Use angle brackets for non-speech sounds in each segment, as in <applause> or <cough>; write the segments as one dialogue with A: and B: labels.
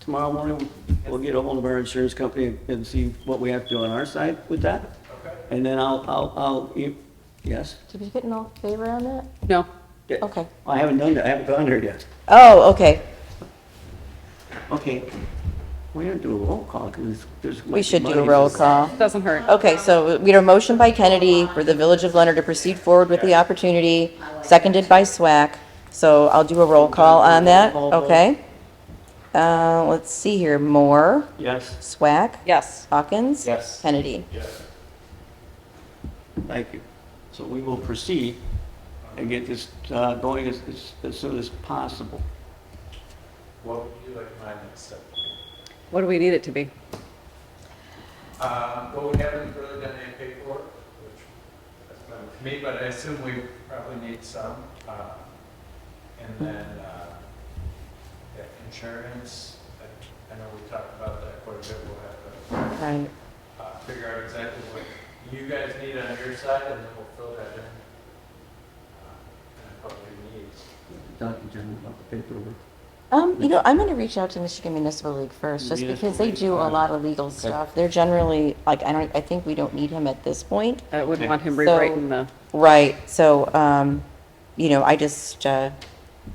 A: tomorrow morning, we'll get ahold of our insurance company and see what we have to do on our side with that. And then I'll, I'll, I'll, you- yes?
B: Did you get an all favor on that?
C: No.
A: Yeah.
B: Okay.
A: I haven't done that, I haven't gone there yet.
B: Oh, okay.
A: Okay. We didn't do a roll call, because there's.
B: We should do a roll call.
C: Doesn't hurt.
B: Okay, so we had a motion by Kennedy for the Village of Leonard to proceed forward with the opportunity, seconded by SWAC. So I'll do a roll call on that, okay? Uh, let's see here, Moore,
A: Yes,
B: SWAC,
C: Yes.
B: Hawkins?
D: Yes.
B: Kennedy?
A: thank you. So we will proceed and get this uh, going as, as- as soon as possible.
D: What would you like my next step? to be?
C: What do we need it to be?
D: Uh, Well, we haven't really done any paperwork, which that's fine with me, but I assume we probably need some. uh, And then uh, yeah, insurance, I- I know we talked about that quite a bit. We'll have
B: Right.
D: to uh, figure out exactly what you guys need on your side, and then we'll fill that in. uh, And probably needs.
A: Dr. General, about the paperwork.
B: Um, you know, I'm gonna reach out to Michigan Municipal League first, just because they do a lot of legal stuff. They're generally, like, I don't, I think we don't need him at this point.
C: I wouldn't want him
B: So-
C: rewriting the,
B: Right, so, um, you know, I just, uh,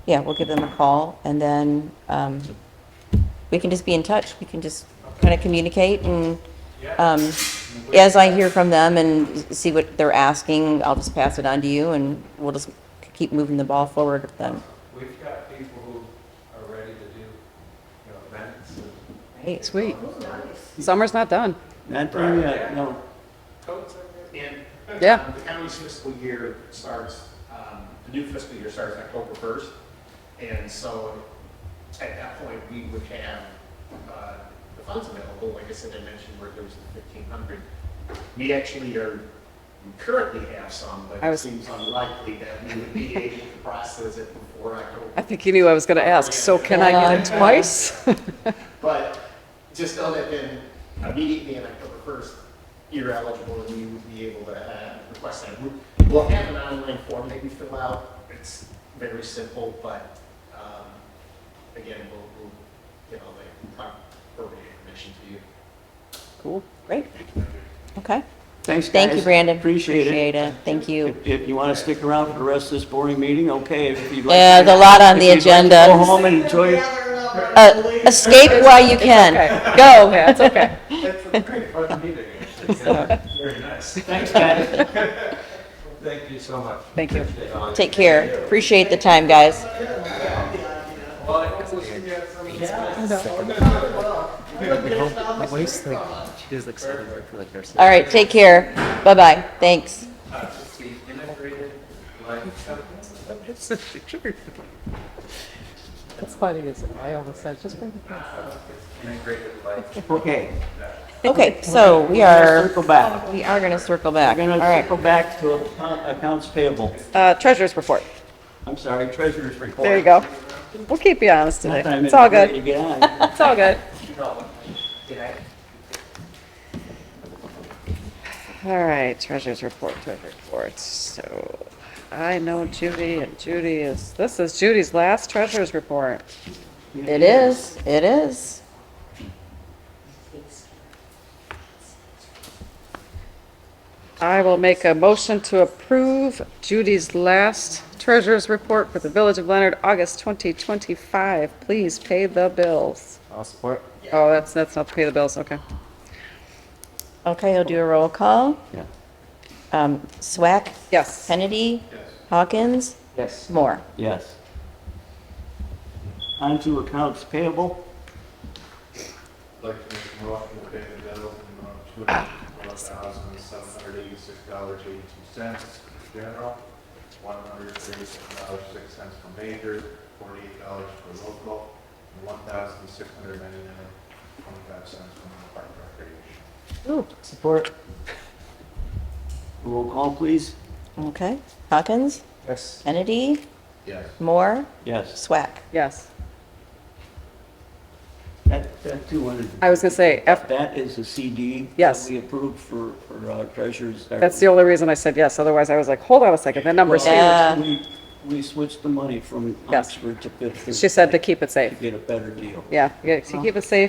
B: yeah, we'll give them a call and then, um, we can just be in touch. We can just kind of communicate and, um, as I hear from them and see what they're asking, I'll just pass it on to you and we'll just keep moving the ball forward then.
D: We've got people who are ready to do, you know, events and
B: Right.
C: sweet. Summer's not done.
A: Not there yet, no.
D: coats, I guess.
E: And
C: Yeah.
E: um, the county's fiscal year starts, um, the new fiscal year starts October 1st. And so at that point, we would have uh, the funds available. Like I said, I mentioned where there was the 1,500. We actually are, we currently have some, but
C: I
E: it
C: was-
E: seems unlikely that we would be able to process it before October
C: I think you knew I was going to ask, so can I get it twice?
E: But just know that then immediately on October first, you're eligible and you would be able to uh, request that. We- We'll have an online form that you fill out. It's very simple, but um, again, we'll, we'll get all the proper information to you.
C: Cool.
B: Great. Okay.
A: Thanks, guys.
B: Thank you, Brandon.
A: Appreciate it.
B: Appreciate it. Thank you.
A: If, if you want to stick around for the rest of this boring meeting, okay, if you'd like.
B: Yeah, there's a lot on the
A: if you'd like to
B: agenda.
A: Go home and enjoy your
B: Uh, escape while you
C: Okay,
B: can.
C: go, yeah, it's <laughs> okay.
D: That's a great part of the meeting, actually. Yeah, Very nice.
A: Thanks, guys.
D: <laughs> Thank you so much.
C: Thank you.
D: Appreciate all your-
B: Take care. Appreciate the time, guys.
D: Well, I hope we'll see you at some-
B: All right, take care. Bye-bye. Thanks.
D: Uh, it's the integrated life company.
C: That's funny, isn't it? I almost said, just bring it.
D: Integrated life.
A: Okay,
B: Okay, so we are,
A: circle back.
B: we are going to circle back.
A: We're
B: All
A: gonna
B: right.
A: circle back to account- accounts payable.
C: Uh, treasurer's report.
A: I'm sorry, treasurer's report.
C: There you go. We'll keep you honest today.
A: Sometime
C: It's all
A: ready to
C: good.
A: get on.
C: It's all good. All right, treasurer's report, treasurer's report. So I know Judy and Judy is, this is Judy's last treasurer's report.
B: It is, it is.
C: I will make a motion to approve Judy's last treasurer's report for the Village of Leonard, August 2025. Please pay the bills.
D: <laughs> I'll support.
C: Oh, that's, that's not to pay the bills, okay.
B: Okay, I'll do a roll call.
A: Yeah.
B: Um, Swack,
C: Yes.
B: Kennedy, Hawkins,
D: Yes.
B: Moore.
A: Yes. On to accounts payable.
F: like to make a motion to pay the bill in the amount of two hundred one thousand seven hundred eighty-six dollars eighty-two cents for general, one hundred thirty-six dollars six cents for major, forty-eight dollars for local, and one thousand six hundred ninety-nine twenty-five cents from the park recreation.
D: Support.
A: Roll call, please.
B: Okay, Hawkins,
D: Yes.
B: Kennedy,
F: Yes.
B: Moore,
A: Yes.
B: Swack.
C: Yes.
A: That, that too, one is-
C: I was gonna say, F-
A: that is a CD. that
C: Yes.
A: We approved for, for uh, treasurer's.
C: that's the only reason I said yes, otherwise I was like, hold on a second, that number's
B: Yeah.
C: huge.
A: We we switched the money from
C: Yes.
A: Oxford to Pittsburgh
C: She said to keep it
A: to
C: safe.
A: get a better deal.
C: Yeah, you gotta keep it safe